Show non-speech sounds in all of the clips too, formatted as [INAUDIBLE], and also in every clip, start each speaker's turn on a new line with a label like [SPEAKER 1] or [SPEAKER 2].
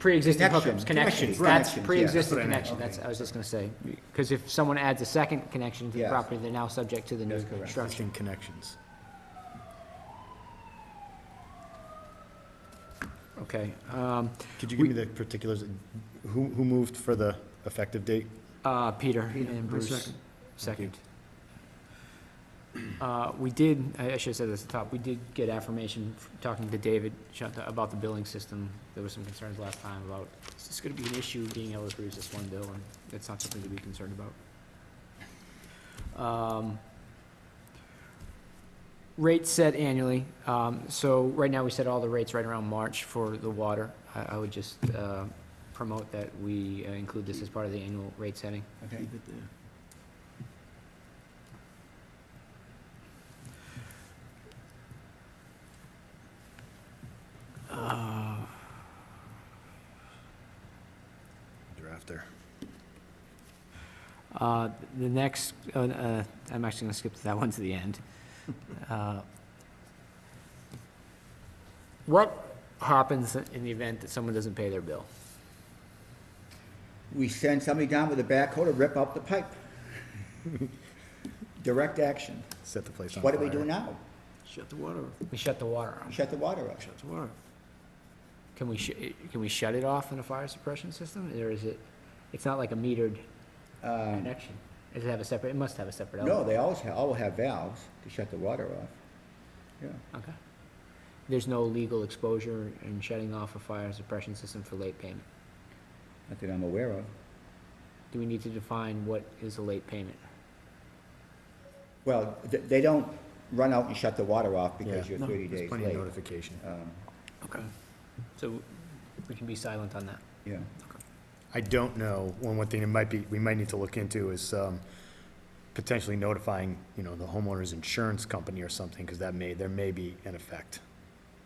[SPEAKER 1] pre-existing hookups,
[SPEAKER 2] Connections,
[SPEAKER 1] connections,
[SPEAKER 2] connections,
[SPEAKER 1] that's
[SPEAKER 2] connections,
[SPEAKER 1] pre-existing
[SPEAKER 2] yeah, that's
[SPEAKER 1] connection,
[SPEAKER 2] what I meant,
[SPEAKER 1] that's, I was just gonna say. Because if someone adds a second connection to the
[SPEAKER 2] Yes.
[SPEAKER 1] property, they're now subject to the new
[SPEAKER 2] That's correct.
[SPEAKER 1] construction.
[SPEAKER 3] Existing connections.
[SPEAKER 1] Okay, um,
[SPEAKER 3] Could you give me the particulars? Who, who moved for the effective date?
[SPEAKER 1] uh, Peter
[SPEAKER 2] Peter,
[SPEAKER 1] and
[SPEAKER 2] I
[SPEAKER 1] Bruce,
[SPEAKER 2] second.
[SPEAKER 1] second. Uh, we did, I I should've said this at the top, we did get affirmation, f- talking to David Shunt- about the billing system. There were some concerns last time about, is this gonna be an issue being able to produce this one bill, and that's not something to be concerned about. Um, Rates set annually, um, so right now we set all the rates right around March for the water. I, I would just, uh, promote that we uh, include this as part of the annual rate setting.
[SPEAKER 2] Okay.
[SPEAKER 3] Drafter.
[SPEAKER 1] Uh, The next, uh, uh, I'm actually going to skip that one to the end. Uh, What happens in the event that someone doesn't pay their bill?
[SPEAKER 2] We send somebody down with a backhoe to rip up the
[SPEAKER 3] [LAUGHS]
[SPEAKER 2] pipe. Direct action.
[SPEAKER 3] Set the place on
[SPEAKER 2] What
[SPEAKER 3] fire.
[SPEAKER 2] do we do now?
[SPEAKER 4] Shut the water off,
[SPEAKER 1] We shut the water off.
[SPEAKER 2] Shut the water off.
[SPEAKER 4] shut the water off.
[SPEAKER 1] Can we, sh- can we shut it off in a fire suppression system? Or is it, it's not like a metered
[SPEAKER 3] Uh,
[SPEAKER 2] Um,
[SPEAKER 1] connection? Does it have a separate, it must have a separate
[SPEAKER 2] No,
[SPEAKER 1] element?
[SPEAKER 2] they always, ha- always have valves to shut the water off. Yeah.
[SPEAKER 1] Okay. There's no legal exposure in shutting off a fire suppression system for late payment?
[SPEAKER 2] Not that I'm aware of.
[SPEAKER 1] Do we need to define what is a late payment?
[SPEAKER 2] Well, th- they don't run out and shut the water off because
[SPEAKER 3] Yeah.
[SPEAKER 2] you're 30
[SPEAKER 3] There's
[SPEAKER 2] days
[SPEAKER 3] plenty of
[SPEAKER 2] late.
[SPEAKER 3] notification.
[SPEAKER 2] Um,
[SPEAKER 1] Okay. So we can be silent on that?
[SPEAKER 2] Yeah,
[SPEAKER 3] I don't know, one, one thing it might be, we might need to look into is, um, potentially notifying, you know, the homeowner's insurance company or something, because that may, there may be an effect.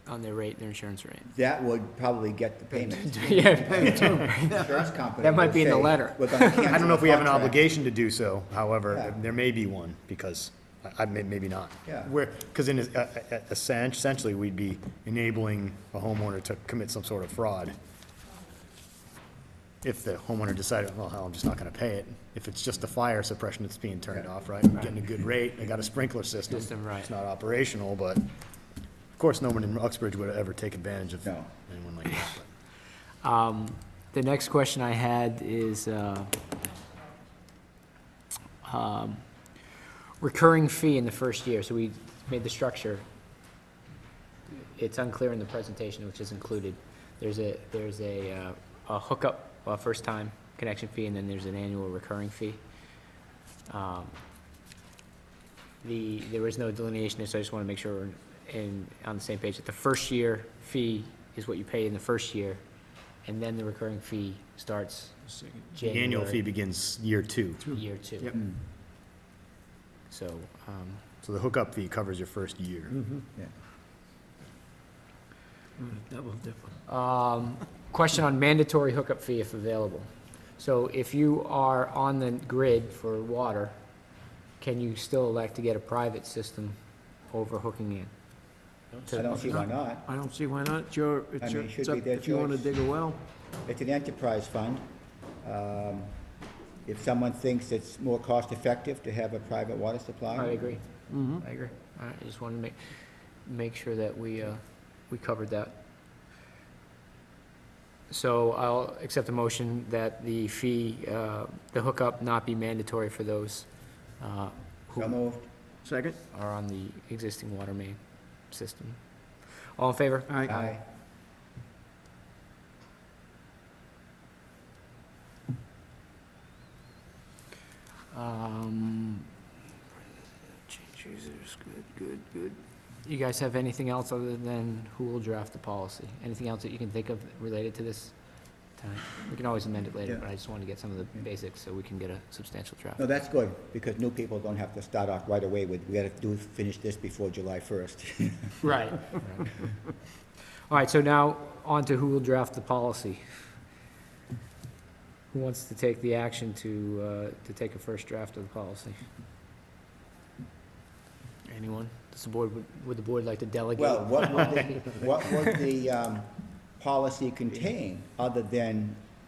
[SPEAKER 1] On their rate, their insurance [LAUGHS] rate.
[SPEAKER 2] that would probably get the
[SPEAKER 3] [LAUGHS]
[SPEAKER 2] payment. Insurance company
[SPEAKER 1] That might
[SPEAKER 2] will
[SPEAKER 1] be in the
[SPEAKER 2] say,
[SPEAKER 1] letter.
[SPEAKER 2] "We're
[SPEAKER 3] [LAUGHS]
[SPEAKER 2] gonna
[SPEAKER 3] I don't
[SPEAKER 2] cancel
[SPEAKER 3] know
[SPEAKER 2] the
[SPEAKER 3] if we have an
[SPEAKER 2] contract."
[SPEAKER 3] obligation to do so, however,
[SPEAKER 2] Yeah.
[SPEAKER 3] there may be one, because, I, I may- maybe not.
[SPEAKER 2] Yeah.
[SPEAKER 3] Where, because in, a- a- a- essen- uh, essentially, we'd be enabling a homeowner to commit some sort of fraud. If the homeowner decided, well, hell, I'm just not gonna pay it, if it's just the fire suppression that's being turned off, right? I'm getting a good rate, I got a sprinkler system.
[SPEAKER 1] System, right.
[SPEAKER 3] It's not operational, but, of course, no one in Uxbridge would ever take advantage of
[SPEAKER 2] No.
[SPEAKER 3] anyone like
[SPEAKER 1] [LAUGHS]
[SPEAKER 3] that, but.
[SPEAKER 1] Um, [LAUGHS] the next question I had is, uh, um, recurring fee in the first year, so we made the structure. It's unclear in the presentation, which is included. There's a, there's a, uh, a hookup, uh, first-time connection fee, and then there's an annual recurring fee. Um, The, there was no delineation, so I just want to make sure we're in, on the same page, that the first year fee is what you pay in the first year, and then the recurring fee starts
[SPEAKER 4] Second.
[SPEAKER 3] The
[SPEAKER 1] January.
[SPEAKER 3] annual fee begins year two.
[SPEAKER 1] Year two.
[SPEAKER 4] Yep.
[SPEAKER 1] So, um,
[SPEAKER 3] So the hookup fee covers your first year.
[SPEAKER 2] Hmm. Yeah.
[SPEAKER 4] I'm gonna Double dip on
[SPEAKER 1] Um, Question on mandatory hookup fee if available. So if you are on the grid for water, can you still elect to get a private system over hooking in?
[SPEAKER 2] I don't see why not.
[SPEAKER 4] I don't see why not, it's your,
[SPEAKER 2] I
[SPEAKER 4] it's
[SPEAKER 2] mean,
[SPEAKER 4] your,
[SPEAKER 2] it should
[SPEAKER 4] it's
[SPEAKER 2] be
[SPEAKER 4] up-
[SPEAKER 2] their
[SPEAKER 4] if you wanna
[SPEAKER 2] choice.
[SPEAKER 4] dig a well,
[SPEAKER 2] It's an enterprise fund. Um, If someone thinks it's more cost-effective to have a private water supply.
[SPEAKER 1] I agree.
[SPEAKER 2] Mm-hmm.
[SPEAKER 1] I agree. All right, I just wanted to make, make sure that we, uh, we covered that. So I'll accept a motion that the fee, uh, the hookup not be mandatory for those, uh, who
[SPEAKER 2] So moved.
[SPEAKER 4] second?
[SPEAKER 1] are on the existing water main system. All in favor?
[SPEAKER 4] Aye.
[SPEAKER 2] Aye.
[SPEAKER 1] Um,
[SPEAKER 4] Change users, good, good, good.
[SPEAKER 1] you guys have anything else other than who will draft the policy? Anything else that you can think of related to this tonight? We can always amend it later,
[SPEAKER 2] Yeah.
[SPEAKER 1] but I just want to get some of the basics so we can get a substantial draft.
[SPEAKER 2] No, that's good, because new people don't have to start off right away with, we gotta do, finish this before July first.
[SPEAKER 1] Right. All right, so now on to who will draft the policy. Who wants to take the action to, uh, to take a first draft of the policy? Anyone? Does the board, would the board like to delegate?
[SPEAKER 2] Well, what would the, what would the, um, policy contain other than